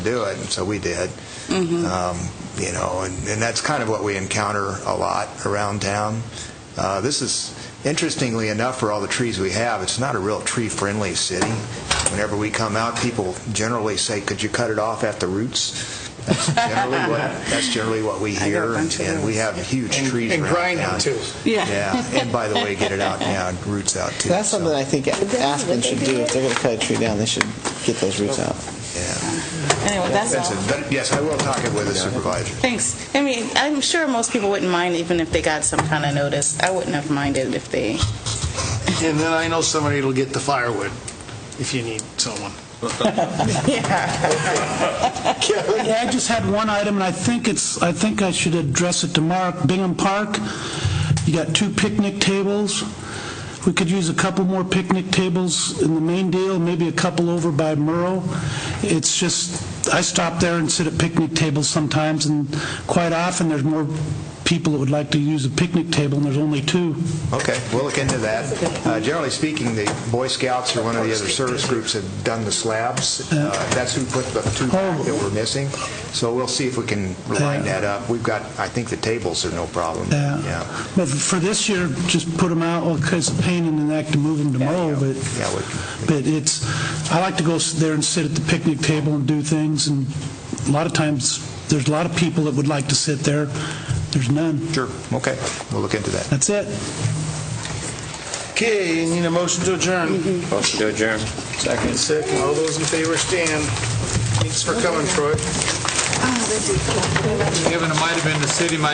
do it, and so we did. Mm-hmm. Um, You know, and, and that's kind of what we encounter a lot around town. Uh, This is, interestingly enough, for all the trees we have, it's not a real tree-friendly city. Whenever we come out, people generally say, could you cut it off at the roots? That's generally what, that's generally what we got a hear, bunch of and we have huge And- trees and around town. grind them, too. Yeah. Yeah, and by the way, get it out, yeah, roots out, too. That's so, something I think Aspen should do. If they're going to cut a tree down, they should get those roots out. yeah. Anyway, that's That's all. it. But, yes, I will talk it with the supervisor. Thanks. I mean, I'm sure most people wouldn't mind even if they got some kind of notice. I wouldn't have minded if they, And then I know somebody will get the firewood if you need someone. yeah. Yeah, I just had one item, and I think it's, I think I should address it to Mark. Bingham Park, you got two picnic tables. We could use a couple more picnic tables in the main deal, maybe a couple over by Murrow. It's just, I stop there and sit at picnic tables sometimes, and quite often, there's more people that would like to use a picnic table, and there's only two. Okay, we'll look into that. Uh, Generally speaking, the Boy Scouts or one of the other service groups have done the slabs. Uh, That's who put the two back that were missing. So we'll see if we can line that up. We've got, I think the tables are no problem. Yeah, Uh, But for this year, just put them out, well, it's a pain in the neck to move them to Murrow, Oh, but, Yeah, we- but it's, I like to go s- there and sit at the picnic table and do things, and a lot of times, there's a lot of people that would like to sit there, there's none. sure, okay, we'll look into that. That's it. Okay, you need a motion to adjourn. Motion to adjourn. Second. Second, all those in favor stand. Thanks for coming, Troy. Given it might have been the city, might